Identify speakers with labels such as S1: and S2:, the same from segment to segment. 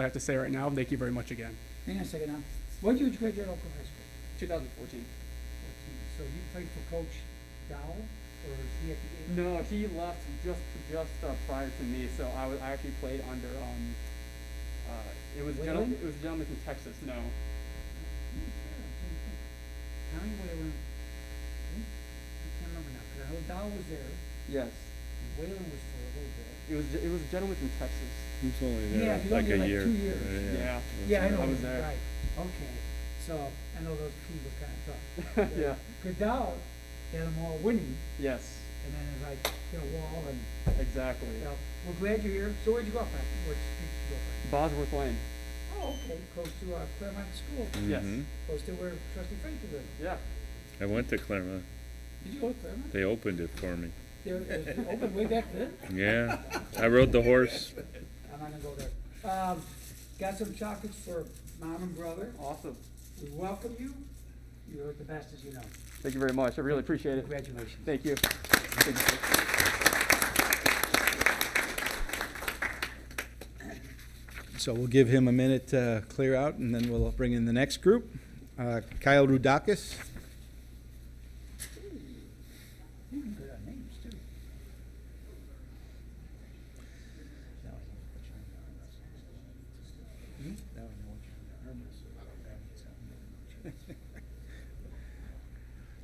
S1: I have to say right now. Thank you very much again.
S2: Hang on a second now. What did you graduate Oakland High School?
S1: 2014.
S2: So you played for Coach Dowell, or is he at the?
S1: No, he left just just uh, prior to me, so I was I actually played under um. Uh, it was a gentleman.
S2: Whalen?
S1: It was a gentleman from Texas. No,
S2: How many were around? I can't remember now, 'cause I know Dowell was there,
S1: yes,
S2: and Whalen was for a little bit.
S1: it was it was a gentleman from Texas.
S3: It's only
S2: Yeah,
S3: there
S2: he's
S3: like
S2: only
S3: a
S2: like
S3: year.
S2: two years.
S3: yeah.
S1: Yeah.
S3: That's
S2: Yeah, I
S3: right.
S2: know,
S1: I was
S2: him,
S1: there.
S2: right, okay, so, I know those two were kinda tough.
S1: yeah.
S2: Cause Dowell had them all winning,
S1: Yes.
S2: and then it's like, hit a wall, and,
S1: Exactly.
S2: you know, we're glad you're here, so where'd you go up at, where'd you go up
S1: Bosworth Lane.
S2: at? Oh, okay, close to, uh, Claremont School.
S1: Yes.
S3: Mhm.
S2: Close to where trustee Frankie lived.
S1: Yeah.
S3: I went to Claremont.
S2: Did you go to Claremont?
S3: They opened it for me.
S2: They were- It was open way back then?
S3: Yeah. I rode the horse.
S2: I'm not gonna go there. Um, got some chocolates for mom and brother.
S1: Awesome.
S2: We welcome you. You're the best as you know.
S1: Thank you very much. I really appreciate it.
S2: Congratulations.
S1: Thank you. Thank
S4: So we'll give him a minute to clear out, and then we'll bring in the next group. Uh, Kyle Rudakis,
S2: You can put our names too.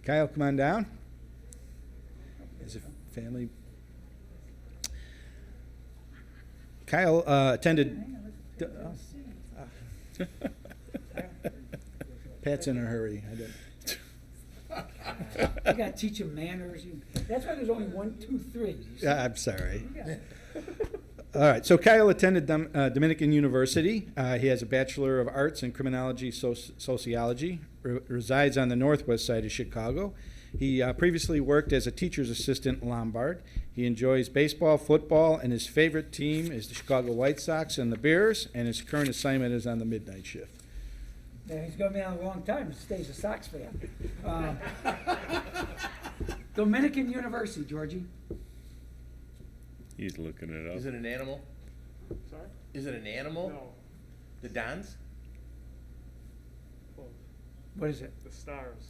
S4: Kyle, come on down. As a family. Kyle uh, attended, d- oh,
S2: uh,
S4: Pat's in a hurry. I don't-
S2: You gotta teach them manners. You- That's why there's only one, two, three. You see?
S4: Yeah, I'm sorry.
S2: You got it.
S4: All right, so Kyle attended Dom- uh, Dominican University. Uh, He has a Bachelor of Arts in Criminology Soci- Sociology, re- resides on the northwest side of Chicago. He uh, previously worked as a teacher's assistant in Lombard. He enjoys baseball, football, and his favorite team is the Chicago White Sox and the Bears, and his current assignment is on the midnight shift.
S2: Now, he's gonna be on a long time, if he stays a Sox fan. Um, Dominican University, Georgie.
S3: He's looking it up.
S5: Is it an animal?
S1: you. Sorry.
S5: Is it an animal? The Dons?
S2: What is it?
S1: The stars.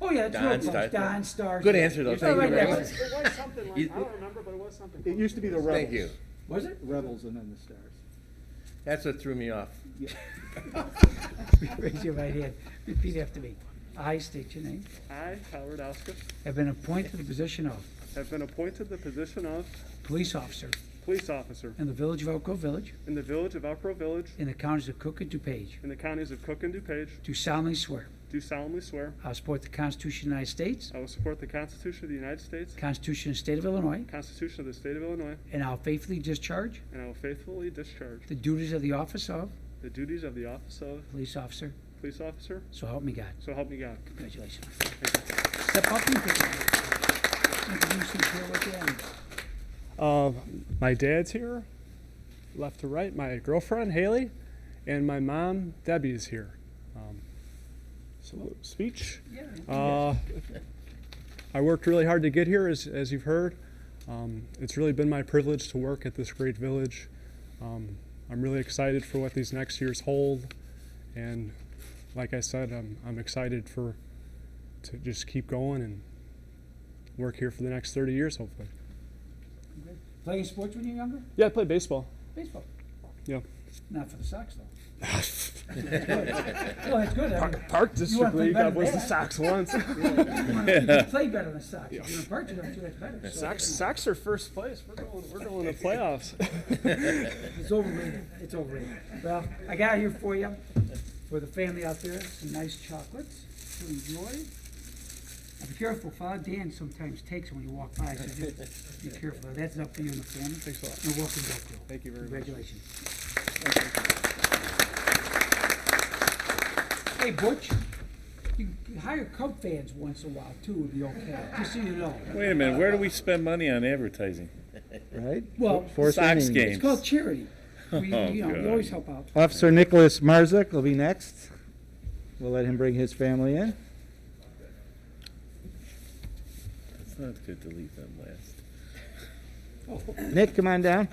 S2: Oh, yeah, it's
S5: Don
S2: Road Punch,
S5: Stars.
S2: Don Stars.
S5: Good answer, though.
S2: It's
S5: Thank
S2: all
S5: you
S2: right
S5: very
S2: there.
S5: much.
S6: It was something like,
S5: You-
S6: I don't remember, but it was something.
S7: It used to be the Rebels.
S5: Thank you.
S2: Was it?
S7: Rebels and then the Stars.
S5: That's what threw me off.
S2: Raise your right hand. Repeat after me. I state your name.
S6: I, Howard Oscar,
S2: Have been appointed to the position of
S6: have been appointed the position of
S2: police officer
S6: police officer
S2: in the village of Elk Grove Village
S6: in the village of Elk Grove Village
S2: in the counties of Cook and DuPage.
S6: in the counties of Cook and DuPage.
S2: Do solemnly swear
S6: Do solemnly swear
S2: I will support the Constitution of the United States,
S6: I will support the Constitution of the United States,
S2: Constitution of the State of Illinois,
S6: Constitution of the State of Illinois,
S2: and I will faithfully discharge
S6: and I will faithfully discharge
S2: the duties of the office of
S6: the duties of the office of
S2: police officer.
S6: police officer.
S2: So help me God.
S6: So help me God.
S2: Congratulations. Step up and take it. Introduce yourself again.
S7: Uh,
S8: my dad's here, left to right. My girlfriend Haley, and my mom Debbie is here. Um, so speech.
S2: Yeah.
S8: Uh, I worked really hard to get here, as as you've heard. Um, it's really been my privilege to work at this great village. Um, I'm really excited for what these next years hold, and like I said, I'm I'm excited for to just keep going and work here for the next 30 years, hopefully.
S2: Playing sports when you're younger?
S8: Yeah, I played baseball.
S2: Baseball.
S8: Yeah.
S2: Not for the Sox, though. Well, it's good. I mean,
S8: Park District
S2: play
S8: League,
S2: better
S8: I was
S2: than
S8: the
S2: that.
S8: Sox once.
S2: you wanna- you can play better than Sox. If you're in Park, you don't do that better. So
S8: Sox, Sox are first place. We're going, we're going to playoffs.
S2: It's overrated. It's overrated. Well, I got here for you, for the family out there, some nice chocolates to enjoy. And be careful, Father Dan sometimes takes them when you walk by, so just be careful. That's up to you and the family. Thanks a lot. And welcome back, Joe.
S8: Thank you very much.
S2: Congratulations. Hey Butch, you you hire Cub fans once in a while too, would be okay, just so you know.
S3: Wait a minute, where do we spend money on advertising?
S4: Right?
S2: Well,
S4: Fourth
S3: Sox
S4: inning.
S2: It's
S3: game.
S2: called charity. We,
S3: Oh,
S2: you know, we
S3: God.
S2: always help out.
S4: Officer Nicholas Marzuk will be next. We'll let him bring his family in.
S3: It's not good to leave them last.
S4: Nick, come on down.